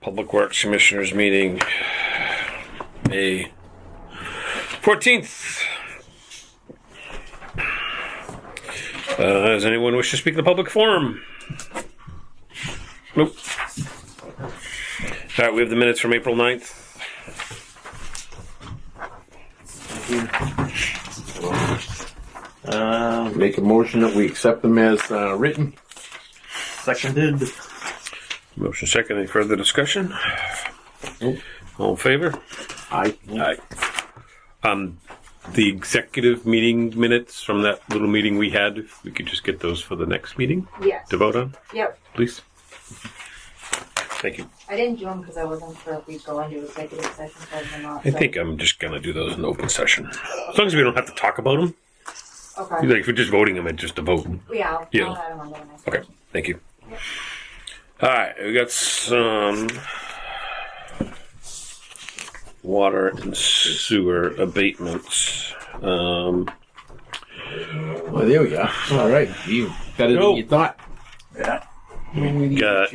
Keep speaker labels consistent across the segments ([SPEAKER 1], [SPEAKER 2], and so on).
[SPEAKER 1] Public Works Commissioners meeting, May fourteenth. Uh, does anyone wish to speak to the public forum? Nope. All right, we have the minutes from April 9th.
[SPEAKER 2] Uh,
[SPEAKER 3] Make a motion that we accept them as uh, written.
[SPEAKER 2] seconded.
[SPEAKER 1] Motion second, any further discussion?
[SPEAKER 3] Nope.
[SPEAKER 1] All in favor?
[SPEAKER 3] I
[SPEAKER 1] Aye. Um, the executive meeting minutes from that little meeting we had, if we could just get those for the next meeting
[SPEAKER 4] Yes.
[SPEAKER 1] to vote on,
[SPEAKER 4] Yep.
[SPEAKER 1] please. Thank you.
[SPEAKER 4] I didn't do them because I wasn't sure if we'd go into executive session for them or not.
[SPEAKER 1] I
[SPEAKER 4] so-
[SPEAKER 1] think I'm just gonna do those in open session. As long as we don't have to talk about them,
[SPEAKER 4] Okay.
[SPEAKER 1] like if we're just voting them, it's just a vote.
[SPEAKER 4] Yeah. I'll,
[SPEAKER 1] Yeah.
[SPEAKER 4] I'll add 'em on the next
[SPEAKER 1] Okay,
[SPEAKER 4] one.
[SPEAKER 1] thank you. All right, we got some water and sewer abatements. Um,
[SPEAKER 3] Well, Oh, there we are. All right, you better
[SPEAKER 1] Go.
[SPEAKER 3] than you thought. Yeah.
[SPEAKER 1] Got-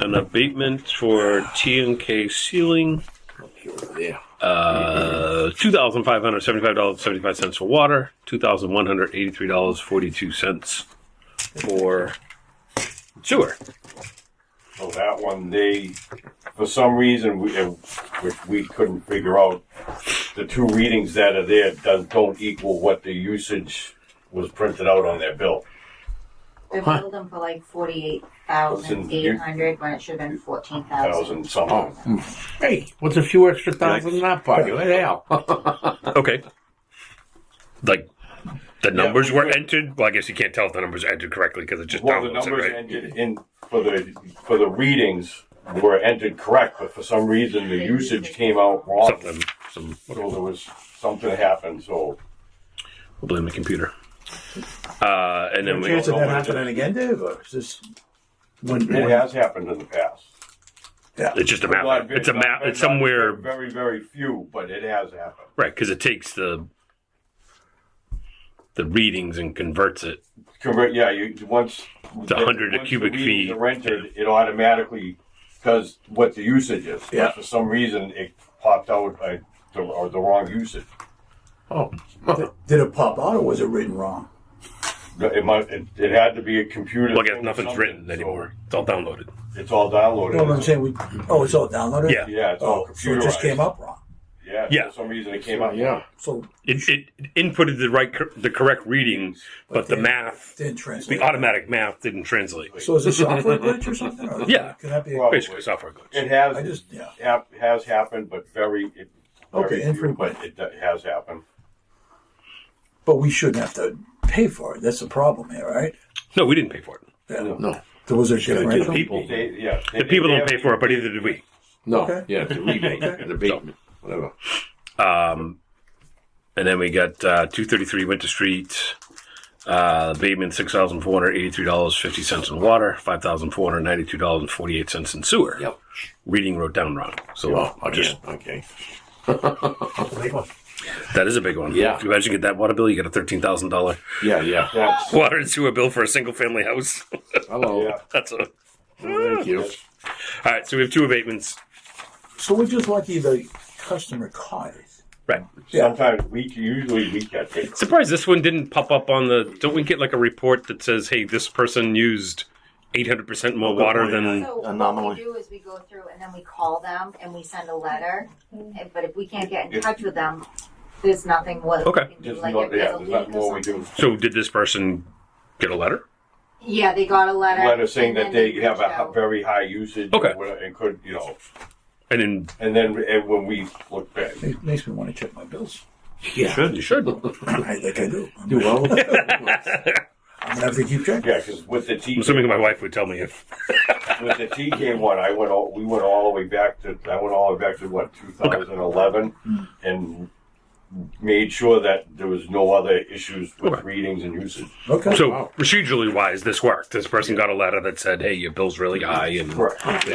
[SPEAKER 1] an abatement for T and K ceiling,
[SPEAKER 3] There.
[SPEAKER 1] uh, two thousand five hundred seventy-five dollars seventy-five cents for water, two thousand one hundred eighty-three dollars forty-two cents for sewer.
[SPEAKER 5] So that one, they, for some reason, we, uh, which we couldn't figure out, the two readings that are there don't, don't equal what the usage was printed out on their bill.
[SPEAKER 4] They
[SPEAKER 3] Huh.
[SPEAKER 4] billed them for like forty-eight thousand eight hundred when it should have been fourteen thousand.
[SPEAKER 5] Thousand something.
[SPEAKER 3] Oh, hmm. hey, what's a few extra thousand in that pocket? What the hell?
[SPEAKER 1] Okay. Like the numbers were entered. Well, I guess you can't tell if the numbers are entered correctly because it just
[SPEAKER 5] Well, the
[SPEAKER 1] downloads it,
[SPEAKER 5] numbers
[SPEAKER 1] right?
[SPEAKER 5] entered in for the for the readings were entered correct, but for some reason the usage came out wrong.
[SPEAKER 1] Something. Some.
[SPEAKER 5] So there was something happened. So
[SPEAKER 1] We'll blame the computer. Uh, and then we.
[SPEAKER 6] chance of that happening again, Dave? Or is this when,
[SPEAKER 5] it
[SPEAKER 6] when-
[SPEAKER 5] has happened in the past.
[SPEAKER 1] It's just a map. It's a map. It's somewhere
[SPEAKER 5] Very very few, but it has happened.
[SPEAKER 1] right because it takes the the readings and converts it.
[SPEAKER 5] Convert, yeah, you, once.
[SPEAKER 1] a hundred
[SPEAKER 5] once the
[SPEAKER 1] cubic
[SPEAKER 5] readings
[SPEAKER 1] feet.
[SPEAKER 5] are entered, it automatically does what the usage is. But
[SPEAKER 6] Yeah.
[SPEAKER 5] For some reason, it popped out, uh, the, or the wrong usage.
[SPEAKER 3] Oh,
[SPEAKER 6] did it pop out or was it written wrong?
[SPEAKER 5] It might, it, it had to be a computer.
[SPEAKER 1] Well, I guess
[SPEAKER 5] thing or
[SPEAKER 1] nothing's
[SPEAKER 5] something,
[SPEAKER 1] written
[SPEAKER 5] so
[SPEAKER 1] anymore. It's all downloaded.
[SPEAKER 5] It's all downloaded.
[SPEAKER 6] You know what I'm saying? We, oh, it's all downloaded?
[SPEAKER 1] Yeah.
[SPEAKER 5] Yeah, it's all
[SPEAKER 6] Oh, so it just
[SPEAKER 5] computerized.
[SPEAKER 6] came up wrong.
[SPEAKER 5] Yeah,
[SPEAKER 1] Yeah.
[SPEAKER 5] for some reason it came out.
[SPEAKER 3] yeah.
[SPEAKER 6] So
[SPEAKER 1] It, it inputted the right cor- the correct reading, but the
[SPEAKER 6] then-
[SPEAKER 1] math,
[SPEAKER 6] didn't
[SPEAKER 1] the
[SPEAKER 6] translate.
[SPEAKER 1] automatic math, didn't translate.
[SPEAKER 6] So is it software glitch or something? Or
[SPEAKER 1] Yeah.
[SPEAKER 6] Can that be? A,
[SPEAKER 5] Well-
[SPEAKER 1] Basically, software glitch.
[SPEAKER 5] It has,
[SPEAKER 6] I just yeah.
[SPEAKER 5] hap- has happened, but very, it,
[SPEAKER 6] Okay,
[SPEAKER 5] very few,
[SPEAKER 6] infrequent.
[SPEAKER 5] but it do- has happened.
[SPEAKER 6] But we shouldn't have to pay for it. That's the problem here, right?
[SPEAKER 1] No, we didn't pay for it.
[SPEAKER 6] Yeah.
[SPEAKER 3] No,
[SPEAKER 6] There was a
[SPEAKER 3] gotta do the
[SPEAKER 6] differential.
[SPEAKER 3] people.
[SPEAKER 5] They, yeah. they-
[SPEAKER 1] The people
[SPEAKER 5] they
[SPEAKER 1] don't
[SPEAKER 5] have-
[SPEAKER 1] pay for it, but either did we.
[SPEAKER 3] No,
[SPEAKER 6] Okay.
[SPEAKER 3] yeah, it's a rebate, an abatement, whatever.
[SPEAKER 1] Um, and then we got uh, 233 Winter Street, uh, Bateman, $6,483.50 in water, $5,492.48 in sewer.
[SPEAKER 3] Yep.
[SPEAKER 1] Reading wrote down wrong. So
[SPEAKER 3] Well, okay,
[SPEAKER 1] just,
[SPEAKER 3] Oh, okay.
[SPEAKER 1] that is a big one.
[SPEAKER 3] Yeah.
[SPEAKER 1] If you imagine you get that water bill, you get a $13,000
[SPEAKER 3] Yeah, yeah.
[SPEAKER 5] That's,
[SPEAKER 1] water and sewer bill for a single family house.
[SPEAKER 3] Hello.
[SPEAKER 5] yeah.
[SPEAKER 1] That's a.
[SPEAKER 3] Thank you.
[SPEAKER 1] All right, so we have two abatements.
[SPEAKER 6] So we're just lucky the customer caught it.
[SPEAKER 1] Right.
[SPEAKER 6] Yeah.
[SPEAKER 5] Sometimes we, usually we catch it.
[SPEAKER 1] Surprised this one didn't pop up on the. Don't we get like a report that says, hey, this person used 800% more water than.
[SPEAKER 4] So what
[SPEAKER 6] Anomaly.
[SPEAKER 4] we do is we go through and then we call them and we send a letter. And- But if we can't get in touch with them, there's nothing what
[SPEAKER 1] Okay.
[SPEAKER 4] we can do.
[SPEAKER 5] There's
[SPEAKER 4] Like
[SPEAKER 5] no,
[SPEAKER 4] if there's
[SPEAKER 5] yeah,
[SPEAKER 4] a
[SPEAKER 5] there's not
[SPEAKER 4] leak or
[SPEAKER 5] more we
[SPEAKER 4] something.
[SPEAKER 5] do.
[SPEAKER 1] So did this person get a letter?
[SPEAKER 4] Yeah, they got a letter.
[SPEAKER 5] Letter saying
[SPEAKER 4] and
[SPEAKER 5] that
[SPEAKER 4] then
[SPEAKER 5] they have a
[SPEAKER 4] reached
[SPEAKER 5] hi-
[SPEAKER 4] out.
[SPEAKER 5] very high usage.
[SPEAKER 1] Okay.
[SPEAKER 5] or whatever, And could, you know,
[SPEAKER 1] And then
[SPEAKER 5] and then and when we look back,
[SPEAKER 6] It makes me want to check my bills.
[SPEAKER 3] Yeah.
[SPEAKER 1] you should. I'm
[SPEAKER 6] I think I do. I'm
[SPEAKER 3] Do
[SPEAKER 6] gonna
[SPEAKER 3] well.
[SPEAKER 6] have to keep checking.
[SPEAKER 5] yeah, because with the T,
[SPEAKER 1] assuming my wife would tell me if
[SPEAKER 5] with the TK one, I went all, we went all the way back to I went all the way back to what 2011, and made sure that there was no other issues with
[SPEAKER 1] Okay.
[SPEAKER 5] readings and usage.
[SPEAKER 6] Okay.
[SPEAKER 1] so
[SPEAKER 3] Wow.
[SPEAKER 1] procedurally wise this worked. This person got a letter that said, "Hey, your bill's really high," and
[SPEAKER 5] Correct.